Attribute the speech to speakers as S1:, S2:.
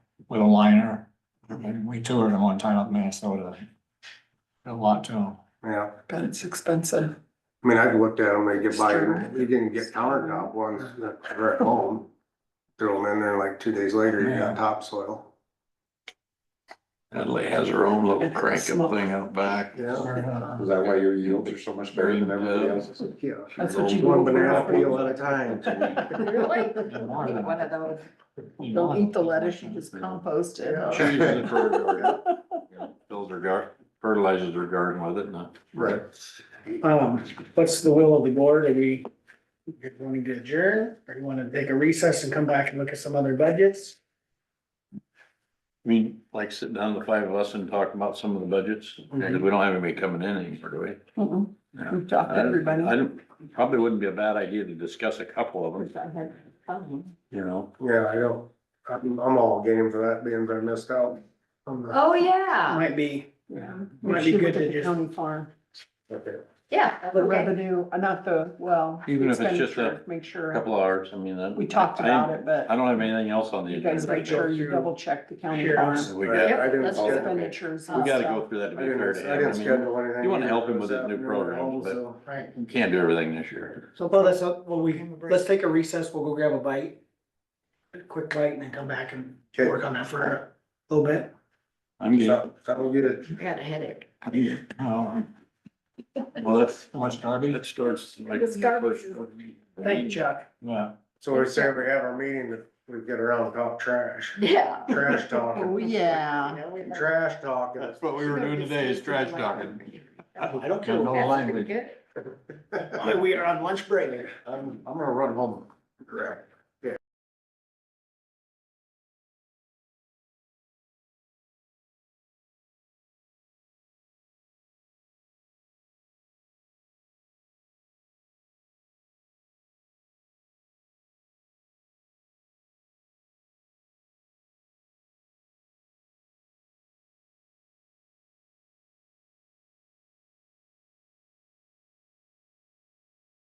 S1: with a liner. And we toured him one time up in Minnesota. A lot to him.
S2: Yeah,
S3: But it's expensive.
S2: I mean, I've looked at them, they get by, you can get countertop ones that are at home. Throw them in there like two days later, you
S1: Yeah.
S2: got topsoil.
S4: Adelaide has her own little crank up
S3: Smoke.
S4: thing out back.
S2: Yeah.
S5: Is that why your yields are so much better than everybody else's?
S2: Yeah.
S3: That's what you
S2: One
S3: go for.
S2: banana peel at a time.
S3: Really?
S1: Eat one of
S3: those. Don't eat the lettuce, you just compost it.
S5: Yeah.
S4: She uses it for her garden. oh, Yeah, Fills her gar, fertilizes her garden with it and.
S2: Right.
S6: Um, what's the will of the board? Are we, you're wanting to adjourn, or you wanna take a recess and come back and look at some other budgets?
S4: I mean, like sit down the five of us and talk about some of the budgets, because we don't have anybody coming in anymore, do we?
S3: Mm-mm.
S4: Yeah.
S3: We've talked to everybody.
S4: I don't, probably wouldn't be a bad idea to discuss a couple of them, you know?
S2: Yeah, I don't, I'm, I'm all game for that, being that I missed out. on the-
S7: Oh, yeah,
S6: Might be,
S3: Yeah.
S6: Might
S3: We
S6: be
S3: should
S6: good
S3: look
S6: to
S3: at the
S6: just-
S3: county farm,
S2: Okay.
S7: yeah.
S3: the
S7: okay.
S3: revenue, uh, not the, well.
S4: Even if it's just a
S3: expenditure, Make
S4: a
S3: sure,
S4: Couple hours, I mean, that.
S3: we talked
S4: I-
S3: about it,
S4: I
S3: but
S4: don't have anything else on the.
S3: you guys
S4: agenda.
S3: make sure you double check the county farm
S6: Sheriff's.
S4: We
S2: Right,
S4: got,
S2: I didn't
S7: Yep,
S2: schedule-
S7: that's-
S3: expenditures
S4: we
S3: and
S4: gotta
S3: stuff.
S4: go through that to
S2: I
S4: be fair
S2: didn't,
S4: to
S2: I didn't
S4: him. I mean,
S2: schedule anything.
S4: you wanna help him with his new programs, but-
S2: So,
S6: right?
S4: we Can't do everything this year.
S6: So, well, that's, up- well, we, let's take a recess, we'll go grab a bite. A quick bite and then come back and
S2: Okay.
S6: work on that for a little bit.
S4: I'm getting,
S2: so- That'll get it.
S7: I Got a headache.
S1: Oh,
S4: well, that's,
S1: much garbage?
S4: that starts like.
S3: It's garbage.
S6: Thank you, Chuck.
S1: Yeah.
S2: So we say we have our meeting, that we get around top trash,
S7: Yeah.
S2: trash
S3: Oh,
S2: talking,
S3: yeah.
S2: trash talking.
S4: That's what we were doing today is trash talking.
S6: I don't
S1: Got no
S6: care.
S7: That's pretty
S1: language.
S7: good.
S6: We are on lunch break.
S2: I'm, I'm gonna run home. Correct.